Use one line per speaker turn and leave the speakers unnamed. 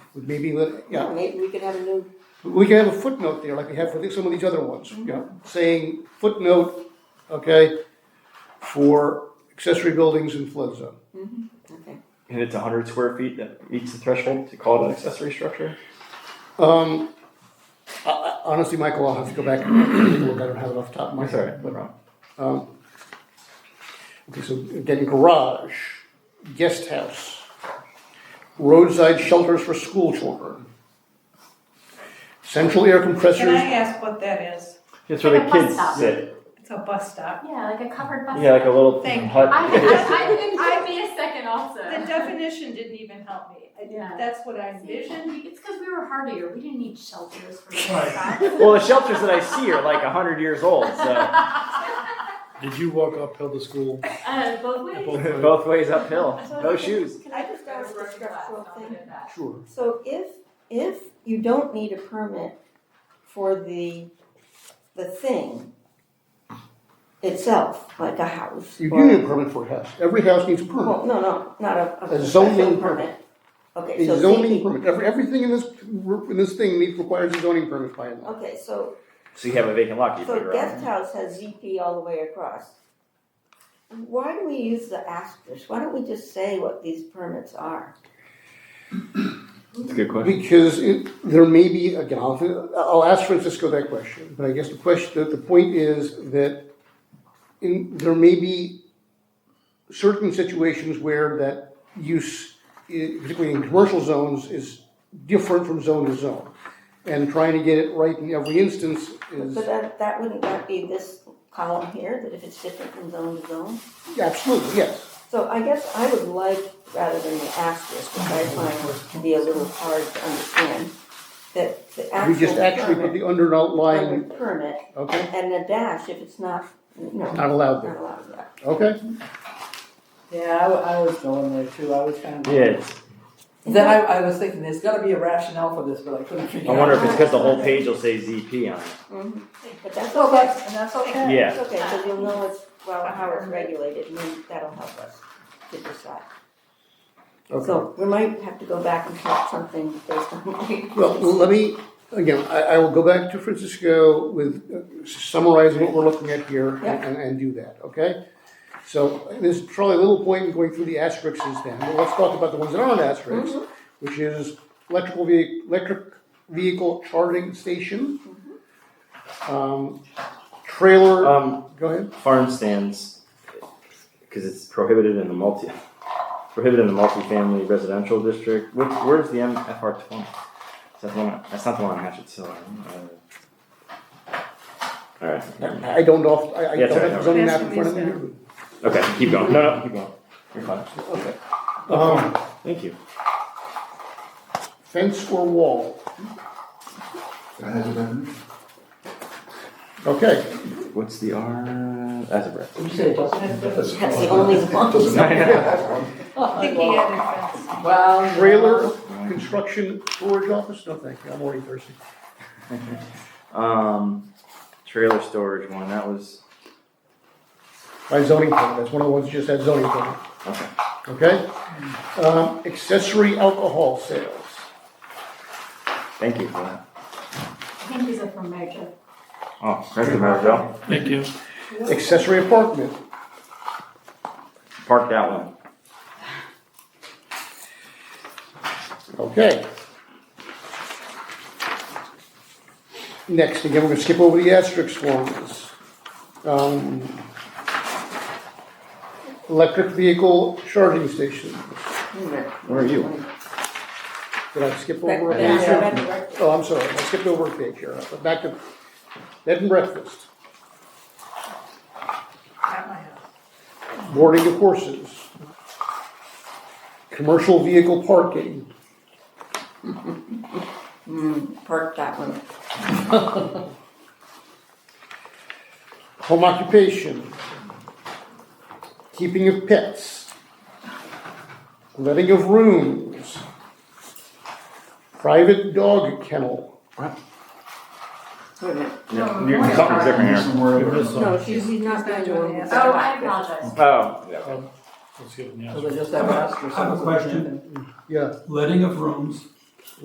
would maybe, let- yeah.
Oh, Maybe we could have a new,
We can have a footnote there, like we have for the- some of these other ones, you know, saying footnote, okay, for accessory buildings in flood zone.
okay.
And it's hundred square feet that meets the threshold to call it an accessory structure?
Um, I- I- honestly, Michael, I'll have to go back and take a look, I don't have it off the top of my
I'm sorry,
head.
no problem.
Um, Okay, so again, garage, guest house, roadside shelters for school children. Central air
Can I
compressors,
ask what that is?
It's where the
Like a bus
kids
stop.
sit,
It's a bus stop.
Yeah, like a covered bus.
yeah, like a little
Thank you.
hut.
I, I, I didn't give me a second also.
The definition didn't even help me. I-
Yeah.
That's what I envisioned.
It's because we were hardier. We didn't need shelters for
Right.
that.
Well, the shelters that I see are like hundred years old, so
Did you walk uphill to school?
Uh, both ways.
Both ways.
both ways uphill, no shoes.
Can I just ask a structural thing?
sure.
So if, if you don't need a permit for the, the thing itself, like a house
You do
or.
need a permit for a house, every house needs a permit.
Well, no, no, not a.
A zoning
special
permit.
Okay, so
A zoning
thinking-
permit, Every- everything in this, in this thing needs, requires a zoning permit by law.
Okay, so,
So you have a vacant lot, you
so
figure
guest
out.
house has ZP all the way across. Why do we use the asterisk? Why don't we just say what these permits are?
That's a good question.
Because it, there may be, again, I'll, I'll ask Francisco that question, but I guess the question, the point is that in, there may be certain situations where that use, i- particularly in commercial zones, is different from zone to zone. And trying to get it right in every instance is,
But that, that wouldn't that be this column here, that if it's different from zone to zone?
absolutely, yes.
So I guess I would like, rather than the asterisk, which I find to be a little hard to understand, that the
We just actually
actual
put
permit,
the under
under
outline,
permit,
okay?
and a dash if it's not, no,
Not allowed
not
there,
allowed in that.
okay?
Yeah, I, wa- I was going there too, I was kind of.
Yeah, it's-
Then I, I was thinking, there's gotta be a rationale for this, but I couldn't figure
I
out.
wonder if it's because the whole page will say ZP on it.
Mhm. But that's
So
okay,
that's, and that's okay.
Yeah.
that's okay, because you'll know it's, well, how it's regulated, and then that'll help us to decide.
Okay.
So we might have to go back and talk something based on.
Well, let me, again, I, I will go back to Francisco with uh, summarizing what we're looking at here
Yeah.
and, and do that, okay? So there's probably a little point in going through the asterisks then, but let's talk about the ones that aren't asterisks, which is electrical vehi, electric vehicle charging station. Um, trailer,
Um,
go ahead.
farm stands, because it's prohibited in the multi, prohibited in the multifamily residential district. Where, where's the MFR twenty? That's one. That's not the one on Hatchettsville. All right. never mind.
I don't off, I, I
Yeah,
don't
sorry,
have the zoning
no.
map in front of me.
Okay, keep going. No, no, keep going. You're fine.
Okay. Um,
Thank you.
fence or wall,
Right.
okay.
What's the R? As a breath.
You say it doesn't.
That's
That's the only one.
I think he had it.
Well. you
Trailer,
know,
construction, storage office, no thank you, I'm already thirsty.
Um, trailer storage one. That was
By zoning permit, that's one of the ones that just had zoning permit,
okay.
okay? Um, accessory alcohol sales,
Thank you for that.
I think these are from Major.
Oh, thank you, Mary Jo.
Thank you.
accessory apartment,
Park that one.
okay? Next, again, we're gonna skip over the asterisk ones. Um, Electric vehicle charging stations,
Where are you?
did I skip
Back-
over? a
back-
page?
back to breakfast.
Oh, I'm sorry, I skipped over a page here, but back to bed and breakfast.
At my house.
boarding of horses, commercial vehicle parking,
Park that one.
home occupation, keeping of pets, letting of rooms, private dog kennel,
Wait a minute.
No, you're, something's different here.
No, she's not going to.
doing the
Oh, I apologize.
Oh, yeah.
Let's give them the
So
answer.
they just have an asterisk.
I have a question.
yeah,
Letting of rooms